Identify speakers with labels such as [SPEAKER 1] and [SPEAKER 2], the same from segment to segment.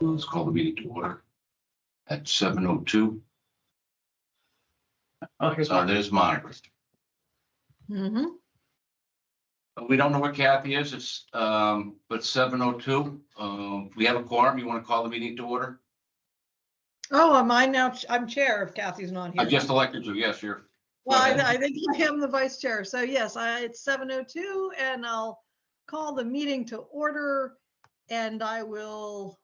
[SPEAKER 1] Let's call the meeting to order at seven oh two.
[SPEAKER 2] Okay.
[SPEAKER 1] So there's Monica.
[SPEAKER 3] Mhm.
[SPEAKER 1] We don't know where Kathy is. It's, um, but seven oh two. Um, we have a quorum. You want to call the meeting to order?
[SPEAKER 3] Oh, am I now, ch- I'm chair if Kathy's not
[SPEAKER 1] I
[SPEAKER 3] here.
[SPEAKER 1] just elected you. Yes, you're.
[SPEAKER 3] Well, I, I think I am the vice chair. So yes, I, it's 7:02 and I'll call the meeting to order. And I will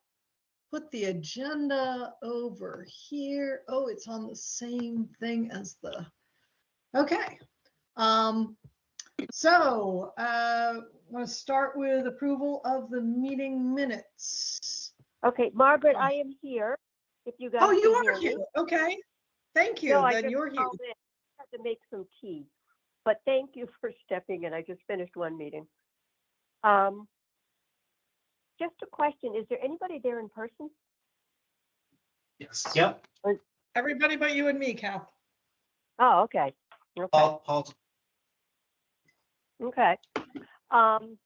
[SPEAKER 3] put the agenda over here. Oh, it's on the same thing as the, okay. Um, so, uh, want to start with approval of the meeting minutes.
[SPEAKER 4] Okay, Margaret,
[SPEAKER 3] Oh.
[SPEAKER 4] I am here, if you guys.
[SPEAKER 3] Oh, you
[SPEAKER 4] can
[SPEAKER 3] are
[SPEAKER 4] hear
[SPEAKER 3] here.
[SPEAKER 4] me.
[SPEAKER 3] Okay. Thank you.
[SPEAKER 4] No, I
[SPEAKER 3] Then
[SPEAKER 4] just
[SPEAKER 3] you're here.
[SPEAKER 4] called in. I Had to make some tea, but thank you for stepping in. I just finished one meeting. Um, Just a question, is there anybody there in person?
[SPEAKER 2] Yes. Yep,
[SPEAKER 3] Everybody but you and me, Kath.
[SPEAKER 4] Oh, okay, okay,
[SPEAKER 2] Paul, Paul's,
[SPEAKER 4] okay. Um,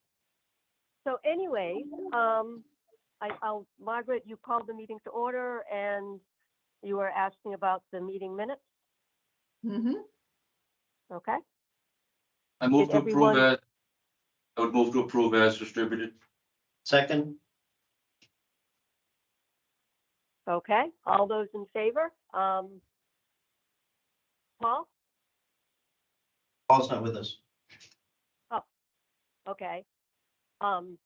[SPEAKER 4] So anyway, um, I, I'll, Margaret, you called the meeting to order and you were asking about the meeting minutes,
[SPEAKER 3] Mhm.
[SPEAKER 4] okay?
[SPEAKER 1] I move
[SPEAKER 4] Did
[SPEAKER 1] to approve
[SPEAKER 4] everyone-
[SPEAKER 1] that. I would move to approve as distributed.
[SPEAKER 2] second,
[SPEAKER 4] Okay, all those in favor? Um, Paul?
[SPEAKER 2] Paul's not with us.
[SPEAKER 4] Okay. Um,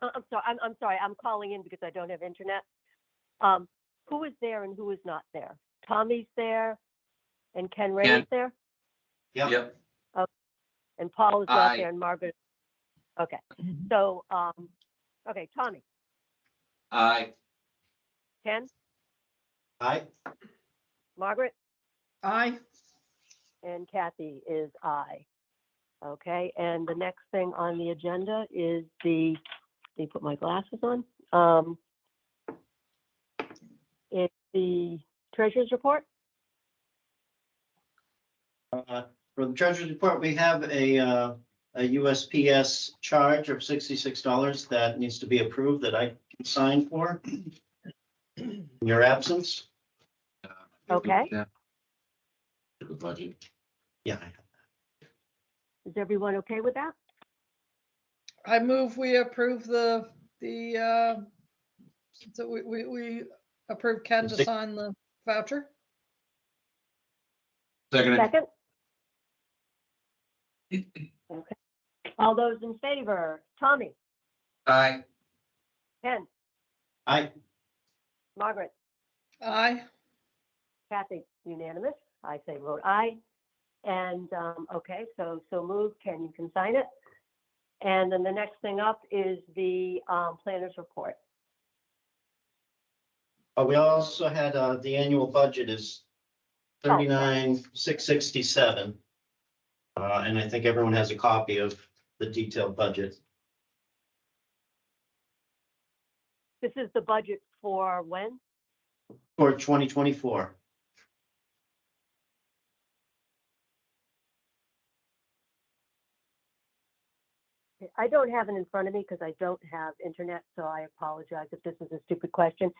[SPEAKER 4] I- I'm sorry, I'm, I'm sorry, I'm calling in because I don't have internet. Um, who is there and who is not there? Tommy's there and Ken Ray
[SPEAKER 1] Ken.
[SPEAKER 4] is there
[SPEAKER 2] Yep.
[SPEAKER 1] Yep.
[SPEAKER 4] and Paul is not
[SPEAKER 1] Aye.
[SPEAKER 4] there and Margaret. Okay, so, um, okay, Tommy,
[SPEAKER 1] I,
[SPEAKER 4] Ken,
[SPEAKER 2] Aye,
[SPEAKER 4] Margaret
[SPEAKER 3] Aye.
[SPEAKER 4] and Kathy is I. Okay, and the next thing on the agenda is the, let me put my glasses on. Um, it's the treasurer's report.
[SPEAKER 2] Uh, for the treasurer's report, we have a, uh, a USPS charge of sixty-six dollars that needs to be approved that I can sign for. in Your absence?
[SPEAKER 4] Okay.
[SPEAKER 1] Yeah. To the budget.
[SPEAKER 2] Yeah, I-
[SPEAKER 4] Is everyone okay with that?
[SPEAKER 3] I move we approve the, the, uh, so we, we, we approve Ken to
[SPEAKER 2] Six.
[SPEAKER 3] sign the voucher.
[SPEAKER 1] Seconded.
[SPEAKER 4] Second? Okay. All those in favor, Tommy,
[SPEAKER 1] I,
[SPEAKER 4] Ken,
[SPEAKER 2] I,
[SPEAKER 4] Margaret,
[SPEAKER 3] Aye.
[SPEAKER 4] Kathy, unanimous. I say vote aye. And, um, okay, so, so moved. Ken, you can sign it. And then the next thing up is the, um, planner's report.
[SPEAKER 2] uh, we also had, uh, the annual budget is thirty-nine, six sixty-seven. Uh, and I think everyone has a copy of the detailed budget.
[SPEAKER 4] This is the budget for when?
[SPEAKER 2] For twenty twenty-four.
[SPEAKER 4] I don't have it in front of me because I don't have internet, so I apologize if this is a stupid question.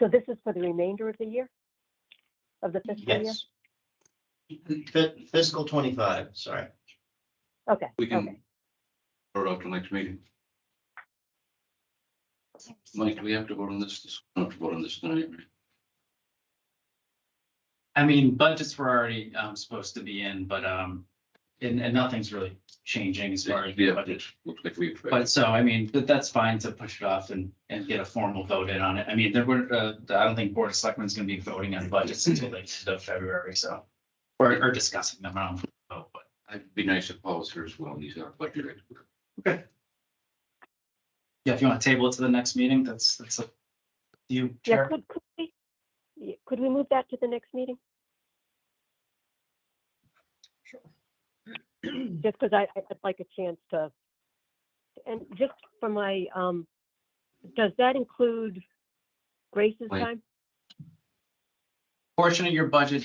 [SPEAKER 4] So this is for the remainder of the year? Of the fiscal year?
[SPEAKER 2] Yes. Fi- Fiscal twenty-five, sorry.
[SPEAKER 4] Okay,
[SPEAKER 1] we
[SPEAKER 4] okay.
[SPEAKER 1] can. Vote up to next meeting. Mike, do we have to vote on this? Not to vote on this tonight, right?
[SPEAKER 5] I mean, budgets were already um supposed to be in, but um, and and nothing's really changing as far as the
[SPEAKER 1] Yeah,
[SPEAKER 5] budget.
[SPEAKER 1] it looks like we've.
[SPEAKER 5] But so, I mean, that that's fine to push it off and and get a formal vote in on it. I mean, there were, uh, I don't think Board of Selectmen's gonna be voting on budgets until late into February, so. Or or discussing them, I don't know, but
[SPEAKER 1] It'd be nice if Paul was here as well. He's our budget.
[SPEAKER 5] yeah, if you want to table it to the next meeting, that's that's a. You,
[SPEAKER 4] Yeah,
[SPEAKER 5] Chair,
[SPEAKER 4] could, could we, yeah, could we move that to the next meeting? Just because I, I- I'd like a chance to, and just for my, um, does that include Grace's
[SPEAKER 1] Wait.
[SPEAKER 4] time?
[SPEAKER 5] portion of your budget